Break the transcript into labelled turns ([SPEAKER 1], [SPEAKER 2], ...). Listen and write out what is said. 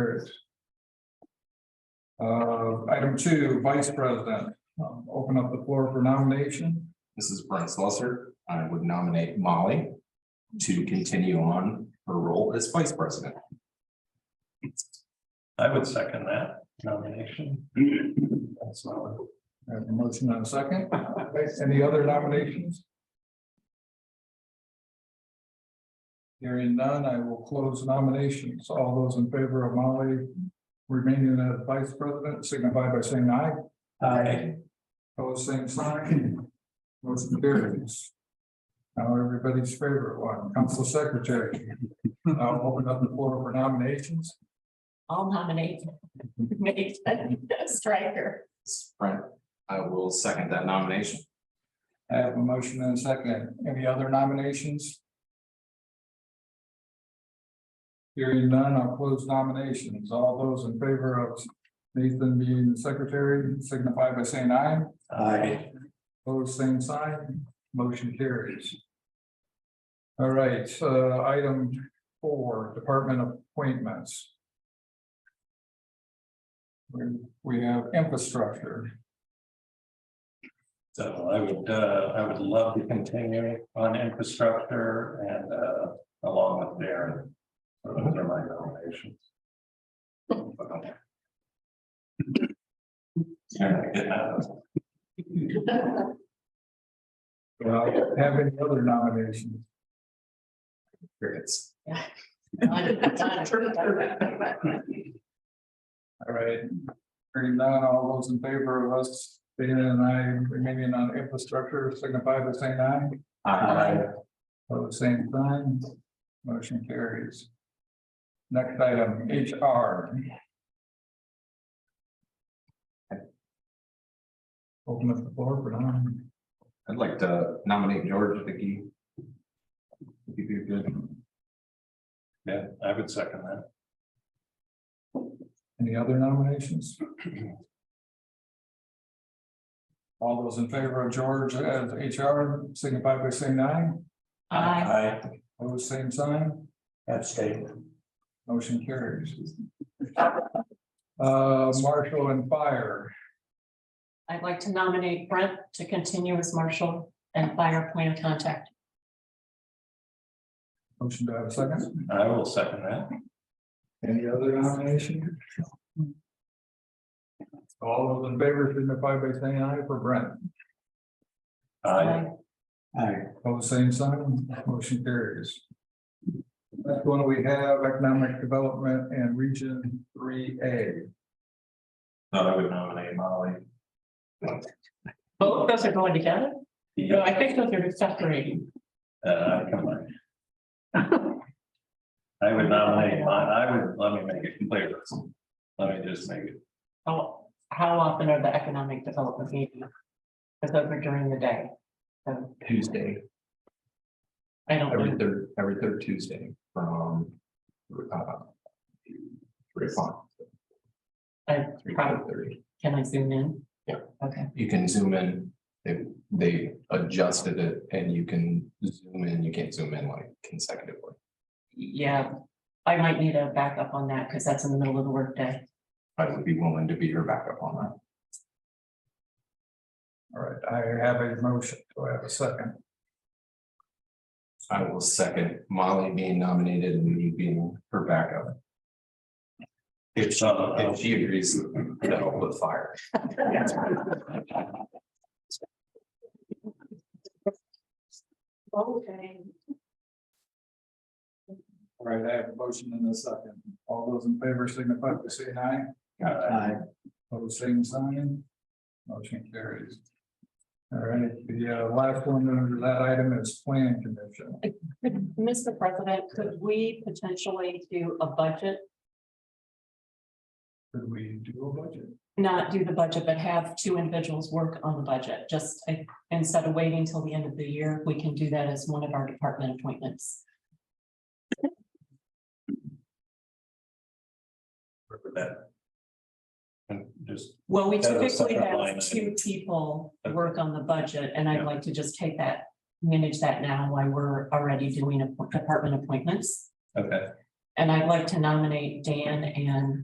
[SPEAKER 1] carries. Uh, item two, vice president, Um, open up the floor for nomination.
[SPEAKER 2] This is Brent Slusser. I would nominate Molly to continue on her role as vice president.
[SPEAKER 3] I would second that nomination. That's my,
[SPEAKER 1] I have a motion and a second. Okay, Any other nominations? Hearing none, I will close nominations. All those in favor of Molly remaining as vice president signify by saying aye.
[SPEAKER 3] Aye.
[SPEAKER 1] Pose same sign. Motion carries. Now everybody's favorite one, council secretary. I'll open up the floor for nominations.
[SPEAKER 4] I'll nominate Nathan Striker.
[SPEAKER 2] Brent, I will second that nomination.
[SPEAKER 1] I have a motion and a second. Any other nominations? Hearing none, I'll close nominations. All those in favor of Nathan being the secretary signify by saying aye.
[SPEAKER 3] Aye.
[SPEAKER 1] Pose same sign, motion carries. All right, uh, item four, department appointments. We- We have infrastructure.
[SPEAKER 3] So I would, uh, I would love to continue on infrastructure and, uh, along with Darren. So Those are my nominations.
[SPEAKER 1] Do I Have any other nominations?
[SPEAKER 2] Crickets.
[SPEAKER 1] All right. Hearing none, all those in favor of us, Dana and I remaining on infrastructure signify by saying aye.
[SPEAKER 2] Aye.
[SPEAKER 1] Pose same sign, motion carries. Next item, HR. Open up the floor for now.
[SPEAKER 2] I'd like to nominate George Vicky. He'd be a good.
[SPEAKER 3] Yeah, I would second that.
[SPEAKER 1] Any other nominations? All those in favor of George as HR signify by saying aye.
[SPEAKER 4] Aye.
[SPEAKER 1] Pose same sign,
[SPEAKER 3] Abstain.
[SPEAKER 1] motion carries. Uh, Marshall and Fire,
[SPEAKER 4] I'd like to nominate Brent to continue as marshal and fire point of contact.
[SPEAKER 1] motion to have a second.
[SPEAKER 3] I will second that.
[SPEAKER 1] Any other nomination? All those in favor signify by saying aye for Brent.
[SPEAKER 3] Aye.
[SPEAKER 1] Aye. All the same sign, motion carries. That's one we have economic development and region three A.
[SPEAKER 2] Thought I would nominate Molly.
[SPEAKER 4] Both those are going together? No,
[SPEAKER 3] Yeah,
[SPEAKER 4] I think those are separating.
[SPEAKER 3] uh, come on. I would nominate, mine. I would, let me make it clear. Let me just make it,
[SPEAKER 4] How, how often are the economic development meetings? Because those are during the day. So
[SPEAKER 2] Tuesday,
[SPEAKER 4] I don't.
[SPEAKER 2] every
[SPEAKER 4] know.
[SPEAKER 2] third, every third Tuesday from. uh, Three o'clock.
[SPEAKER 4] I
[SPEAKER 2] Three
[SPEAKER 4] probably,
[SPEAKER 2] thirty.
[SPEAKER 4] can I zoom in?
[SPEAKER 2] Yeah.
[SPEAKER 4] Okay,
[SPEAKER 2] you can zoom in. They, they adjusted it and you can zoom in, you can't zoom in like consecutively.
[SPEAKER 4] yeah, I might need a backup on that because that's in the middle of the workday.
[SPEAKER 2] I would be willing to be your backup on that.
[SPEAKER 1] All right, I have a motion, do I have a second?
[SPEAKER 2] I will second Molly being nominated and me being her backup. If she, if she agrees, that'll put fire.
[SPEAKER 4] Okay.
[SPEAKER 1] All right, I have a motion and a second. All those in favor signify by saying aye.
[SPEAKER 3] Aye.
[SPEAKER 1] All the same sign, motion carries. All right, the uh, last one under that item is plan commission.
[SPEAKER 4] Could- Mr. President, could we potentially do a budget,
[SPEAKER 1] Could we do a budget?
[SPEAKER 4] not do the budget, but have two individuals work on the budget? Just uh, instead of waiting till the end of the year, we can do that as one of our department appointments.
[SPEAKER 3] for that. And just,
[SPEAKER 4] Well, we
[SPEAKER 3] As a
[SPEAKER 4] typically
[SPEAKER 3] separate line
[SPEAKER 4] have
[SPEAKER 3] item.
[SPEAKER 4] two people work on the budget, and I'd like to just take that, manage that now while we're already doing appo- department appointments.
[SPEAKER 3] okay.
[SPEAKER 4] And I'd like to nominate Dan and